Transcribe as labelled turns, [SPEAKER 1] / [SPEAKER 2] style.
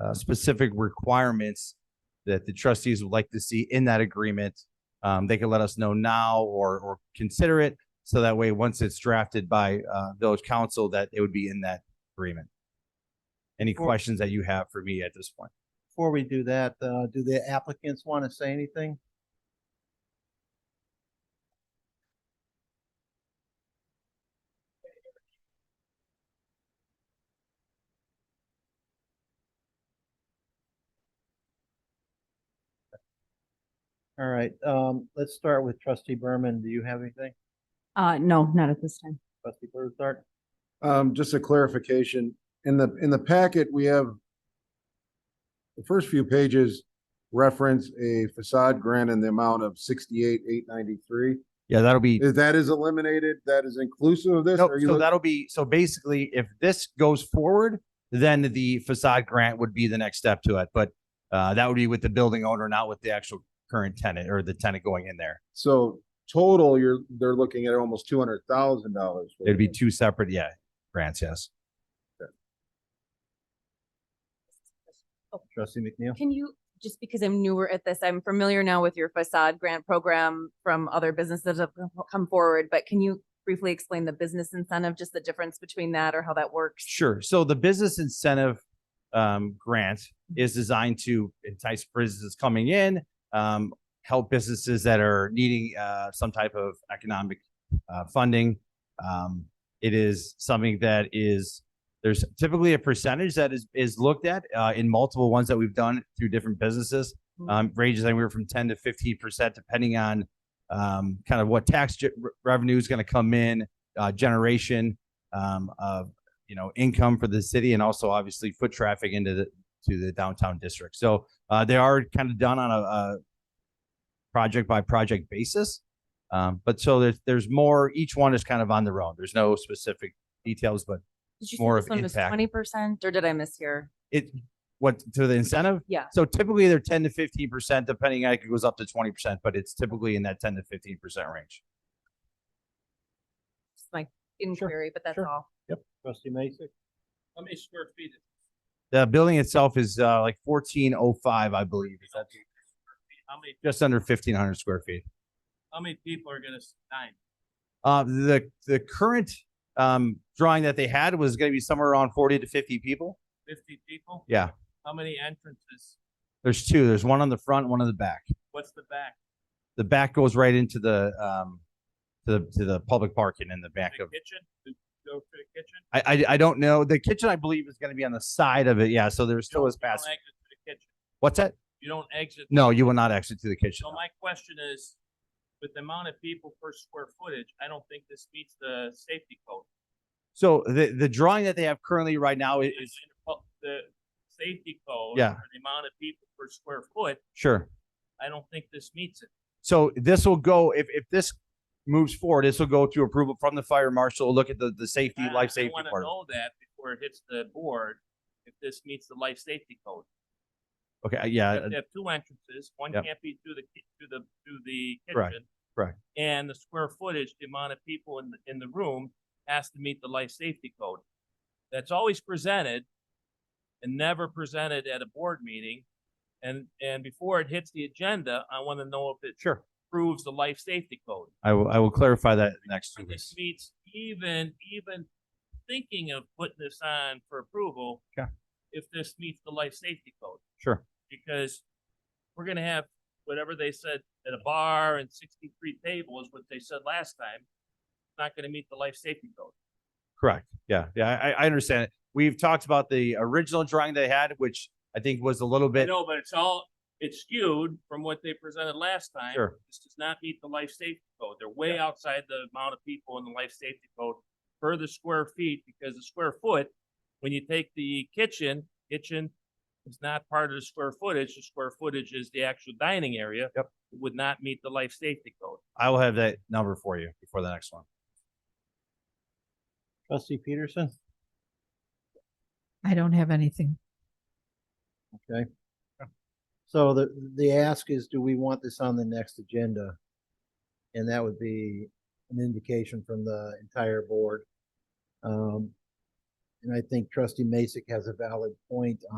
[SPEAKER 1] uh, specific requirements that the trustees would like to see in that agreement, um, they can let us know now or, or consider it. So that way, once it's drafted by, uh, village council, that it would be in that agreement. Any
[SPEAKER 2] Cool.
[SPEAKER 1] questions that you have for me at this point?
[SPEAKER 2] Before we do that, uh, do the applicants want to say anything? All right, um, let's start with trustee Berman. Do you have anything?
[SPEAKER 3] Uh, no, not at this time.
[SPEAKER 2] Trustee Bluestart?
[SPEAKER 4] Um, just a clarification, in the, in the packet, we have the first few pages reference a facade grant in the amount of sixty-eight, eight ninety-three.
[SPEAKER 1] Yeah, that'll be.
[SPEAKER 4] Is that is eliminated, that is inclusive of this?
[SPEAKER 1] Nope,
[SPEAKER 4] Are you
[SPEAKER 1] so
[SPEAKER 4] look-
[SPEAKER 1] that'll be, so basically, if this goes forward, then the facade grant would be the next step to it, but uh, that would be with the building owner, not with the actual current tenant or the tenant going in there.
[SPEAKER 4] So total, you're, they're looking at almost two hundred thousand dollars.
[SPEAKER 1] It'd be two separate, yeah, grants, yes.
[SPEAKER 2] Trustee McNeil?
[SPEAKER 5] Can you, just because I'm newer at this, I'm familiar now with your facade grant program from other businesses that have come forward, but can you briefly explain the business incentive, just the difference between that or how that works?
[SPEAKER 1] Sure. So the business incentive um, grant is designed to entice businesses coming in, um, help businesses that are needing uh, some type of economic uh, funding. Um, it is something that is there's typically a percentage that is is looked at uh, in multiple ones that we've done through different businesses.
[SPEAKER 5] Mhm.
[SPEAKER 1] Um, ranges anywhere from 10 to 15 percent, depending on um, kind of what tax ge- re- revenue is going to come in, uh, generation um, of you know income for the city and also obviously foot traffic into the to the downtown district so uh, they are kind of done on a, a project by project basis um, but so there's there's more each one is kind of on their own there's no specific details but
[SPEAKER 5] Did you
[SPEAKER 1] more
[SPEAKER 5] say
[SPEAKER 1] of
[SPEAKER 5] this one was
[SPEAKER 1] impact.
[SPEAKER 5] twenty percent or did I mishear?
[SPEAKER 1] it what to the incentive
[SPEAKER 5] Yeah.
[SPEAKER 1] so typically they're 10 to 15 percent depending on it goes up to 20 percent but it's typically in that 10 to 15 percent range
[SPEAKER 5] Just my inquiry, but that's
[SPEAKER 2] sure.
[SPEAKER 5] all.
[SPEAKER 2] Trustee Mason?
[SPEAKER 6] How many square feet? is-
[SPEAKER 1] the building itself is uh, like 1405 i believe is that
[SPEAKER 6] How many,
[SPEAKER 1] just under 1500 square feet
[SPEAKER 6] how many people are gonna sign?
[SPEAKER 1] Uh, the, the current, um, drawing that they had was gonna be somewhere around forty to fifty people.
[SPEAKER 6] Fifty people?
[SPEAKER 1] Yeah,
[SPEAKER 6] How many entrances?
[SPEAKER 1] there's two. There's one on the front, one on the back.
[SPEAKER 6] What's the back?
[SPEAKER 1] The back goes right into the, um, to the, to the public parking in the back
[SPEAKER 6] The
[SPEAKER 1] of,
[SPEAKER 6] kitchen? To Go to the kitchen?
[SPEAKER 1] I, I, I don't know. The kitchen, I believe, is gonna be on the side of it. Yeah, so there's
[SPEAKER 6] You
[SPEAKER 1] still
[SPEAKER 6] don't-
[SPEAKER 1] is
[SPEAKER 6] you don't
[SPEAKER 1] pass.
[SPEAKER 6] exit to the kitchen.
[SPEAKER 1] What's that?
[SPEAKER 6] You don't exit.
[SPEAKER 1] No, you will not exit to the kitchen.
[SPEAKER 6] So my question is, with the amount of people per square footage, I don't think this meets the safety code.
[SPEAKER 1] So the, the drawing that they have currently right now
[SPEAKER 6] The-
[SPEAKER 1] is,
[SPEAKER 6] The safety code.
[SPEAKER 1] Yeah.
[SPEAKER 6] or The amount of people per square foot,
[SPEAKER 1] sure.
[SPEAKER 6] I don't think this meets it.
[SPEAKER 1] So this will go, if, if this moves forward, this will go to approval from the fire marshal, look at the, the safety,
[SPEAKER 6] I-
[SPEAKER 1] life safety
[SPEAKER 6] I
[SPEAKER 1] part.
[SPEAKER 6] want to
[SPEAKER 1] of it.
[SPEAKER 6] Uh, know that before it hits the board, if this meets the life safety code.
[SPEAKER 1] Okay, yeah, uh,
[SPEAKER 6] You have to have two entrances, one
[SPEAKER 1] Yep.
[SPEAKER 6] can't be through the, ki- through the, through the
[SPEAKER 1] Correct,
[SPEAKER 6] kitchen.
[SPEAKER 1] correct.
[SPEAKER 6] And the square footage, the amount of people in, the in the room has to meet the life safety code. That's always presented and never presented at a board meeting. And, and before it hits the agenda, I want to know if it
[SPEAKER 1] sure.
[SPEAKER 6] proves the life safety code.
[SPEAKER 1] I will, I will clarify that next two
[SPEAKER 6] If This
[SPEAKER 1] weeks.
[SPEAKER 6] meets even, even thinking of putting this on for approval.
[SPEAKER 1] Okay.
[SPEAKER 6] If this meets the life safety code
[SPEAKER 1] Sure.
[SPEAKER 6] because we're gonna have whatever they said at a bar and sixty-three tables, what they said last time. it's Not gonna meet the life safety code.
[SPEAKER 1] Correct. Yeah. Yeah. I, I- I understand it. We've talked about the original drawing they had, which I think was a little
[SPEAKER 6] I
[SPEAKER 1] bit,
[SPEAKER 6] know, but it's all, it's skewed from what they presented last time.
[SPEAKER 1] Sure.
[SPEAKER 6] This does not meet the life safety code. They're way outside the amount of people in the life safety code per the square feet, because the square foot, when you take the kitchen, kitchen is not part of the square footage. The square footage is the actual dining area.
[SPEAKER 1] Yep.
[SPEAKER 6] It Would not meet the life safety code.
[SPEAKER 1] I will have that number for you before the next one.
[SPEAKER 2] Trustee Peterson?
[SPEAKER 3] I don't have anything.
[SPEAKER 2] So the, the ask is, do we want this on the next agenda? And that would be an indication from the entire board. Um, and I think trustee Masek has a valid point